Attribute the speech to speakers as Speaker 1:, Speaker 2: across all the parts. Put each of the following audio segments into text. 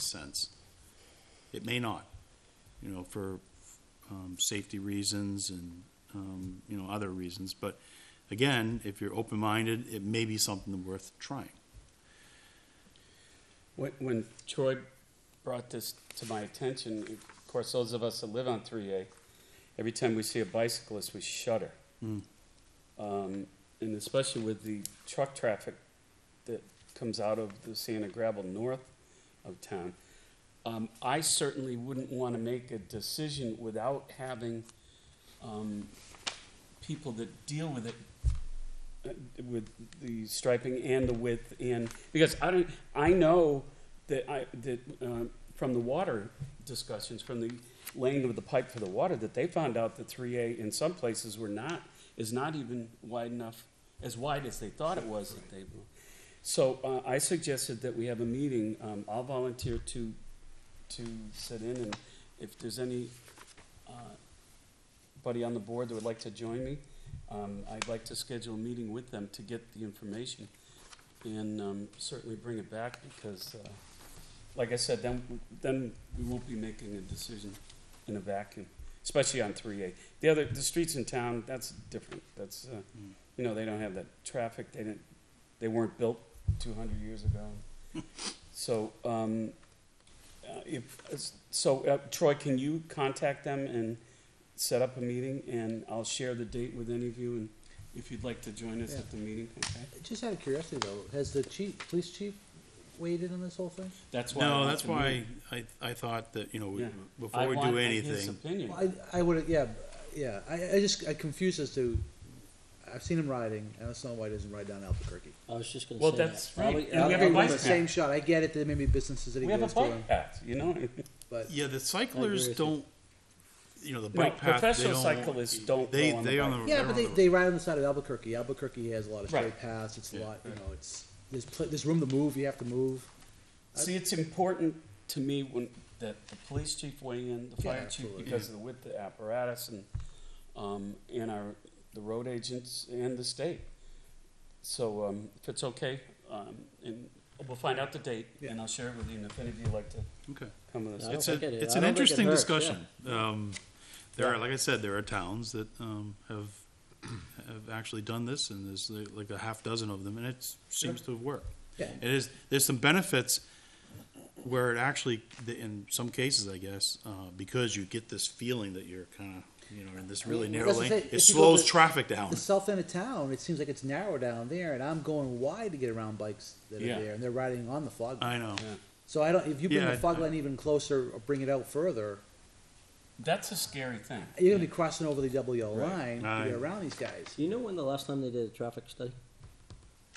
Speaker 1: sense. It may not, you know, for um, safety reasons and, um, you know, other reasons. But again, if you're open-minded, it may be something worth trying.
Speaker 2: When, when Troy brought this to my attention, of course, those of us that live on three A, every time we see a bicyclist, we shudder. Um, and especially with the truck traffic that comes out of the sand and gravel north of town. Um, I certainly wouldn't want to make a decision without having, um, people that deal with it uh, with the striping and the width and because I don't I know that I that uh, from the water discussions from the laying of the pipe for the water that they found out that 3A in some places were not is not even wide enough as wide as they thought it was that they so uh, I suggested that we have a meeting um, I'll volunteer to to sit in and if there's any uh, buddy on the board that would like to join me, um, I'd like to schedule a meeting with them to get the information and, um, certainly bring it back because, uh, like I said, then, then we won't be making a decision in a vacuum, especially on three A. The other, the streets in town, that's different. That's, uh, you know, they don't have that traffic. They didn't, they weren't built two hundred years ago. So, um, uh, if, so uh, Troy, can you contact them and set up a meeting, and I'll share the date with any of you, and if you'd like to join us at the meeting, okay?
Speaker 3: Just out of curiosity though, has the chief, police chief weighed in on this whole thing?
Speaker 2: That's why. I
Speaker 1: No,
Speaker 2: want
Speaker 1: that's
Speaker 2: the meeting.
Speaker 1: why I, I thought that, you know, we-
Speaker 2: Yeah. I
Speaker 1: before we
Speaker 2: want
Speaker 1: do
Speaker 2: His
Speaker 1: anything,
Speaker 2: opinion.
Speaker 3: Well, I, I would, yeah, yeah, I, I just, I confused as to, I've seen him riding, and I don't know why he doesn't ride down Albuquerque.
Speaker 4: I was just gonna say
Speaker 2: Well,
Speaker 4: that.
Speaker 2: that's right. And
Speaker 4: Probably-
Speaker 2: we have a
Speaker 3: I'll give him
Speaker 2: bike
Speaker 3: the
Speaker 2: path.
Speaker 3: Same shot, I get it, that maybe businesses that he
Speaker 2: We have a
Speaker 3: goes to,
Speaker 2: bike path, you know?
Speaker 3: but,
Speaker 1: yeah, the
Speaker 4: with
Speaker 1: cyclists
Speaker 4: you.
Speaker 1: don't, you know, the
Speaker 2: No,
Speaker 1: bike path, they
Speaker 2: professional
Speaker 1: don't.
Speaker 2: cyclists don't
Speaker 1: They,
Speaker 2: go on
Speaker 1: they
Speaker 2: the
Speaker 1: on
Speaker 2: bike.
Speaker 1: the.
Speaker 3: yeah,
Speaker 1: they're
Speaker 3: but
Speaker 1: on
Speaker 3: they,
Speaker 1: the-
Speaker 3: they ride on the side of Albuquerque, Albuquerque has a lot of
Speaker 2: Right.
Speaker 3: straight paths, it's a
Speaker 1: Yeah.
Speaker 3: lot, you know, it's, there's pl- there's room to move, you have to move,
Speaker 2: See, it's important to me when, that the police chief weigh in, the
Speaker 3: Yeah,
Speaker 2: fire chief,
Speaker 3: absolutely.
Speaker 2: because of the width of the apparatus and, um, and our, the road agents and the state. So, um, if it's okay, um, and we'll find out the date, and
Speaker 3: Yeah.
Speaker 2: I'll share it with you, and if any of you like to
Speaker 1: Okay.
Speaker 2: come with us.
Speaker 4: No,
Speaker 2: It's-
Speaker 1: It's
Speaker 4: think
Speaker 1: a,
Speaker 4: it-
Speaker 1: it's
Speaker 4: I
Speaker 1: an
Speaker 4: don't think it
Speaker 1: interesting
Speaker 4: hurts,
Speaker 1: discussion. Um, there
Speaker 2: Yeah.
Speaker 1: are, like I said, there are towns that, um, have, have actually done this and there's like- like a half dozen of them and it seems to have worked.
Speaker 3: Yeah.
Speaker 1: It is, there's some benefits where it actually, the- in some cases, I guess, uh, because you get this feeling that you're kinda, you know, in this really
Speaker 3: Well,
Speaker 1: narrow
Speaker 3: that's the
Speaker 1: lane,
Speaker 3: thing.
Speaker 1: it
Speaker 3: If you go
Speaker 1: slows
Speaker 3: to-
Speaker 1: traffic down.
Speaker 3: the south end of town, it seems like it's narrow down there, and I'm going wide to get around bikes that are
Speaker 2: Yeah.
Speaker 3: there, and they're riding on the fog. line.
Speaker 1: I know.
Speaker 2: yeah.
Speaker 3: So I don't, if you bring
Speaker 1: Yeah, I-
Speaker 3: the fog
Speaker 1: I-
Speaker 3: line even closer or bring it out further,
Speaker 2: That's a scary thing.
Speaker 3: you're gonna be crossing over the double yellow line to
Speaker 1: Aye.
Speaker 3: get around these guys.
Speaker 4: Do you know when the last time they did a traffic study?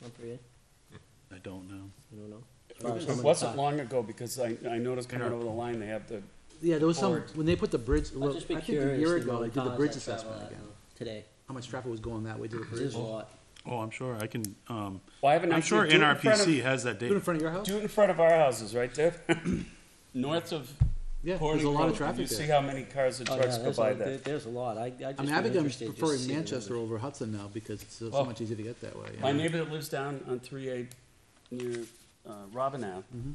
Speaker 4: On three A?
Speaker 1: I don't know.
Speaker 4: You don't know? As
Speaker 3: Uh,
Speaker 4: far as how
Speaker 2: It
Speaker 4: many
Speaker 2: wasn't
Speaker 4: times?
Speaker 2: long ago, because I, I noticed coming over the line, they have the,
Speaker 3: Yeah, there was some,
Speaker 2: Forward.
Speaker 3: when they put the bridge,
Speaker 4: I'd
Speaker 3: well, I
Speaker 4: just be
Speaker 3: think a year
Speaker 4: curious the
Speaker 3: ago, they
Speaker 4: amount of
Speaker 3: did the
Speaker 4: times
Speaker 3: bridge
Speaker 4: I travel
Speaker 3: assessment
Speaker 4: that
Speaker 3: again.
Speaker 4: now. Today.
Speaker 3: How much traffic was going that way to the
Speaker 4: It
Speaker 3: bridge?
Speaker 4: is a
Speaker 3: Do
Speaker 4: lot.
Speaker 1: Oh, I'm sure, I can, um,
Speaker 2: well, I haven't
Speaker 1: I'm sure
Speaker 2: actually. do it in front of-
Speaker 1: NRPC has that
Speaker 3: it in
Speaker 1: data.
Speaker 3: front of your house?
Speaker 2: Do it in front of our houses, right there. North of
Speaker 3: Yeah, there's
Speaker 2: Corning
Speaker 3: a lot
Speaker 2: Road,
Speaker 3: of
Speaker 2: and you
Speaker 3: traffic
Speaker 2: see how
Speaker 3: there.
Speaker 2: many cars and
Speaker 4: Oh,
Speaker 2: trucks
Speaker 4: yeah,
Speaker 2: go
Speaker 4: there's
Speaker 2: by
Speaker 4: a- there-
Speaker 2: there.
Speaker 4: There's a lot. I, I just.
Speaker 3: I mean,
Speaker 4: been
Speaker 3: Abingham's
Speaker 4: interested just to
Speaker 3: preferring
Speaker 4: see the
Speaker 3: Manchester
Speaker 4: numbers.
Speaker 3: over Hudson now, because it's so so
Speaker 2: Oh.
Speaker 3: much easier to get that way. yeah.
Speaker 2: My neighbor that lives down on three A near, uh, Robin Ave,
Speaker 3: Mm-hmm.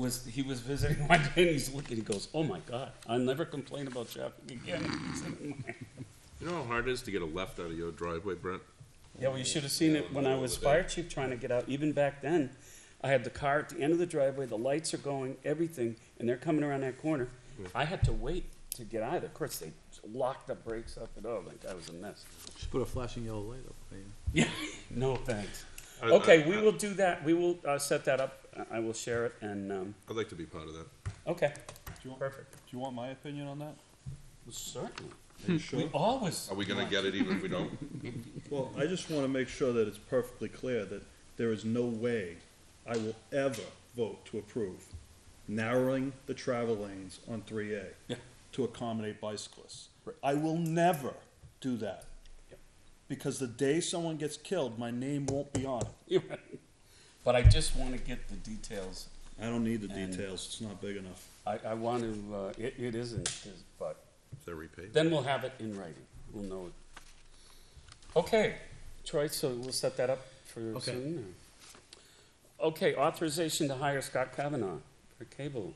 Speaker 2: was, he was visiting one day and he's looking, he goes, oh my God, I'll never complain about traffic again.
Speaker 5: You know how hard it is to get a left out of your driveway, Brent?
Speaker 2: Yeah, well, you should have seen it when I was fire chief trying to get out, even back then. I had the car at the end of the driveway, the lights are going, everything, and they're coming around that corner. I had to wait to get out of there. Of course, they locked the brakes up and oh, my God, it was a mess.
Speaker 3: Should put a flashing yellow light up. there.
Speaker 2: Yeah, no thanks.
Speaker 5: I- I-
Speaker 2: Okay, we
Speaker 5: I-
Speaker 2: will do that. We will, uh, set that up. I, I will share it and, um,
Speaker 5: I'd like to be part of that.
Speaker 2: okay.
Speaker 6: you want-
Speaker 2: Perfect.
Speaker 6: Do you want my opinion on that?
Speaker 2: Certainly. Hmm. We always.
Speaker 5: Are we gonna get it even if we don't?
Speaker 6: Well, I just want to make sure that it's perfectly clear that there is no way I will ever vote to approve narrowing the travel lanes on three A to accommodate bicyclists. I will never do that. Because the day someone gets killed, my name won't be on it.
Speaker 2: You're right. But I just wanna get the details.
Speaker 6: I don't need the
Speaker 2: And-
Speaker 6: details, it's not big enough.
Speaker 2: I, I want to, uh, it, it isn't, but
Speaker 5: If they're repaid.
Speaker 2: Then we'll have it in writing. We'll know it. Okay, Troy, so we'll set that up for
Speaker 1: Okay.
Speaker 2: soon. or- Okay, authorization to hire Scott Kavanaugh for cable